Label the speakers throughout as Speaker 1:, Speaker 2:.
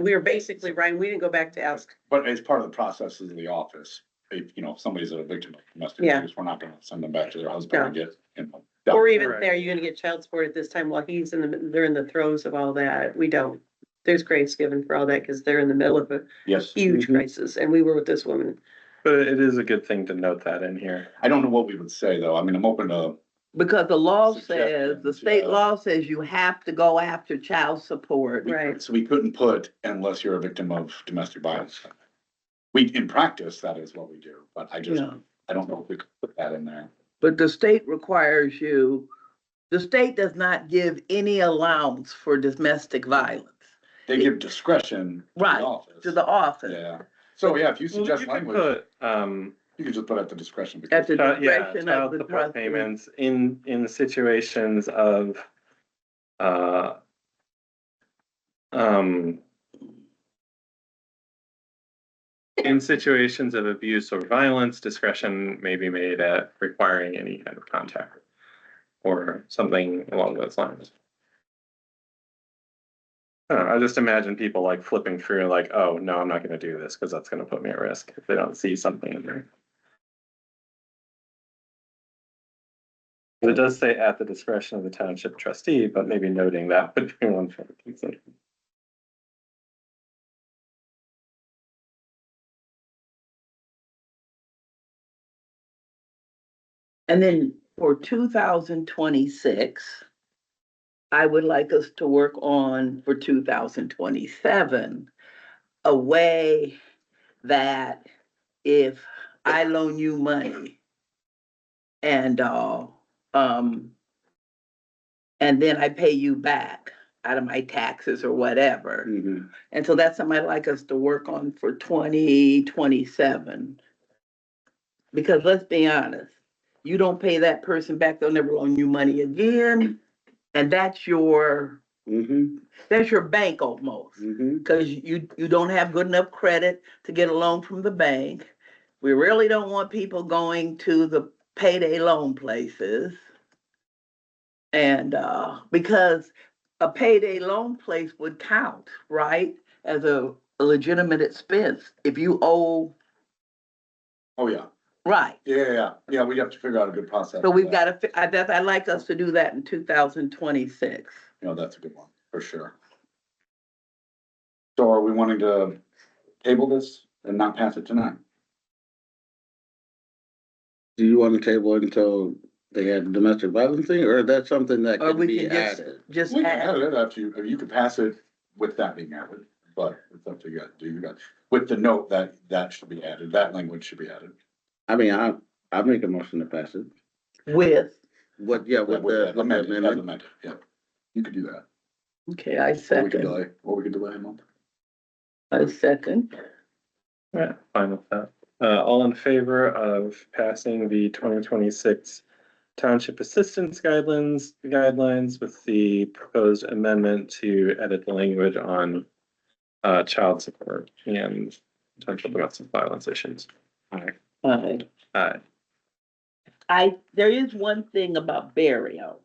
Speaker 1: We were basically, Ryan, we didn't go back to ask,
Speaker 2: But as part of the process of the office, if, you know, if somebody's a victim of domestic
Speaker 1: Yeah.
Speaker 2: abuse, we're not gonna send them back to their husband and get, you know. dealt
Speaker 1: or even,
Speaker 3: Right.
Speaker 1: are you gonna get child support at this time while he's in the, they're in the throes of all that? We don't. There's grace given for all that, cause they're in the middle of a
Speaker 2: Yes,
Speaker 1: huge
Speaker 3: Mhm.
Speaker 1: crisis, and we were with this woman.
Speaker 3: But it is a good thing to note that in here.
Speaker 2: I don't know what we would say though. I mean, I'm open to,
Speaker 4: Because the law says, the
Speaker 2: Suggestions,
Speaker 4: state
Speaker 2: yeah.
Speaker 4: law says you have to go after child support.
Speaker 2: we-
Speaker 1: Right.
Speaker 2: so we couldn't put unless you're a victim of domestic violence. We, in practice, that is what we do, but I just,
Speaker 4: Yeah.
Speaker 2: I don't know if we could put that in there.
Speaker 4: But the state requires you, the state does not give any allowance for domestic violence
Speaker 2: They give discretion. to the
Speaker 4: Right,
Speaker 2: office.
Speaker 4: to the office.
Speaker 2: Yeah, so yeah, if you
Speaker 3: Well,
Speaker 2: suggest
Speaker 3: you could
Speaker 2: language,
Speaker 3: put, um,
Speaker 2: you can just put at the discretion.
Speaker 4: At
Speaker 2: because
Speaker 4: the
Speaker 3: child- yeah,
Speaker 4: discretion of
Speaker 3: child
Speaker 4: the
Speaker 3: support
Speaker 4: trustee.
Speaker 3: payments in, in situations of, uh, um, in situations of abuse or violence, discretion may be made at requiring any kind of contact or something along those lines. I don't know, I just imagine people like flipping through like, oh, no, I'm not gonna do this because that's gonna put me at risk if they don't see something in there. But It does say at the discretion of the township trustee, but maybe noting that would be one thing. to consider.
Speaker 4: And then for two thousand twenty-six, I would like us to work on for two thousand twenty-seven, a way that if I loan you money and, uh, um, and then I pay you back out of my taxes or whatever.
Speaker 3: Mm-hmm,
Speaker 2: Mhm.
Speaker 4: And so that's something I'd like us to work on for twenty twenty-seven. Because let's be honest, you don't pay that person back, they'll never loan you money again. And that's your,
Speaker 3: mm-hmm,
Speaker 4: that's your bank almost, because you, you don't have good enough credit to get a loan from the bank. We really don't want people going to the payday loan places. And, uh, because a payday loan place would count, right, as a a legitimate expense if you owe,
Speaker 2: Oh, yeah,
Speaker 4: right.
Speaker 2: yeah, yeah, yeah, yeah, we have to figure out a good process.
Speaker 4: So
Speaker 2: for
Speaker 4: we've
Speaker 2: that.
Speaker 4: got to, fi- I, that, I'd like us to do that in two thousand twenty-six.
Speaker 2: You know, that's a good one, for sure. So are we wanting to table this and not pass it tonight?
Speaker 5: Do you want to table it until they had domestic violence thing, or is that something that
Speaker 4: Or
Speaker 5: could
Speaker 4: we
Speaker 5: be
Speaker 4: can just,
Speaker 5: added?
Speaker 4: just
Speaker 2: We can add
Speaker 4: add,
Speaker 2: it after you, you could pass it with that being added, but it's up to you, guys. do you guys, with the note that, that should be added, that language should be added.
Speaker 5: I mean, I, I make a motion to pass it.
Speaker 4: with,
Speaker 5: What, yeah, with the
Speaker 2: that amended, as
Speaker 5: amendment,
Speaker 2: amended, yeah. You could do that,
Speaker 4: okay,
Speaker 2: or
Speaker 4: I
Speaker 2: we could
Speaker 4: second,
Speaker 2: delay, or we could delay a month.
Speaker 4: I second.
Speaker 3: Yeah, fine with that. Uh, all in favor of passing the twenty twenty-six Township Assistance Guidelines, guidelines with the proposed amendment to edit the language on uh, child support and potential domestic violence issues.
Speaker 4: Aye.
Speaker 3: Uh,
Speaker 4: I, there is one thing about burial.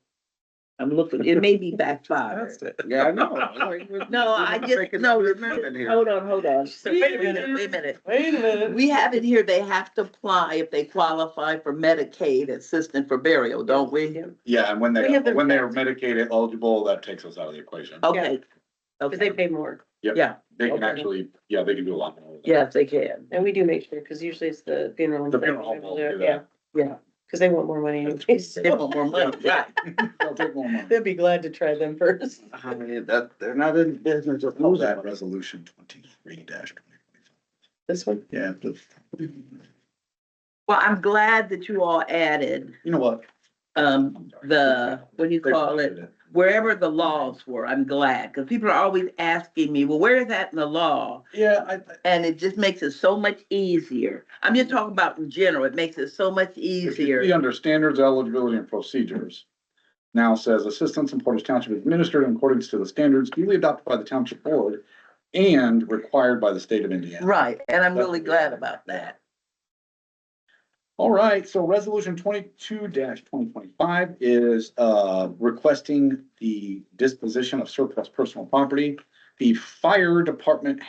Speaker 4: I'm looking, it may be backfired.
Speaker 3: that's it.
Speaker 5: yeah, I know. like, we're-
Speaker 4: No,
Speaker 5: we're
Speaker 4: I
Speaker 5: not
Speaker 4: just,
Speaker 5: making
Speaker 4: no,
Speaker 5: an
Speaker 4: it's-
Speaker 5: amendment here.
Speaker 4: hold on, hold on.
Speaker 1: Wait a
Speaker 4: Wait a minute, wait a minute.
Speaker 3: Wait a minute.
Speaker 4: We have it here, they have to apply if they qualify for Medicaid assistance for burial, don't we?
Speaker 2: Yeah, and when
Speaker 1: We
Speaker 2: they,
Speaker 1: have the-
Speaker 2: when they're Medicaid eligible, that takes us out of the equation.
Speaker 4: Okay.
Speaker 1: Cause they pay
Speaker 4: Okay,
Speaker 1: more,
Speaker 2: They can
Speaker 4: Oh, okay.
Speaker 2: actually, yeah, they can do a lot more. with that.
Speaker 4: yes, they can.
Speaker 1: and we do make sure, cause usually it's the funeral.
Speaker 2: The funeral home will do that.
Speaker 1: Yeah,
Speaker 4: Yeah.
Speaker 1: cause they want more money anyways.
Speaker 4: They want more money, right?
Speaker 2: They'll take more money.
Speaker 1: They'd be glad to try them first.
Speaker 5: I mean, that, they're not in the business of
Speaker 2: Move
Speaker 5: losing.
Speaker 2: resolution twenty-three dash twenty.
Speaker 1: This one,
Speaker 2: Yeah, the-
Speaker 4: Well, I'm glad that you all added,
Speaker 2: you know what?
Speaker 4: um, the, what do you call it? Wherever the laws were, I'm glad, because people are always asking me, well, where is that in the law?
Speaker 2: Yeah, I,
Speaker 4: And it just makes it so much easier. I'm just talking about in general, it makes it so much
Speaker 2: it should be
Speaker 4: easier.
Speaker 2: under standards, eligibility and procedures. Now says assistance in Portage Township is administered in accordance to the standards duly adopted by the township board and required by the state of Indiana.
Speaker 4: Right, and I'm really glad about that.
Speaker 2: All right, so resolution twenty-two twenty twenty-five is, uh, requesting the disposition of surplus personal property The fire department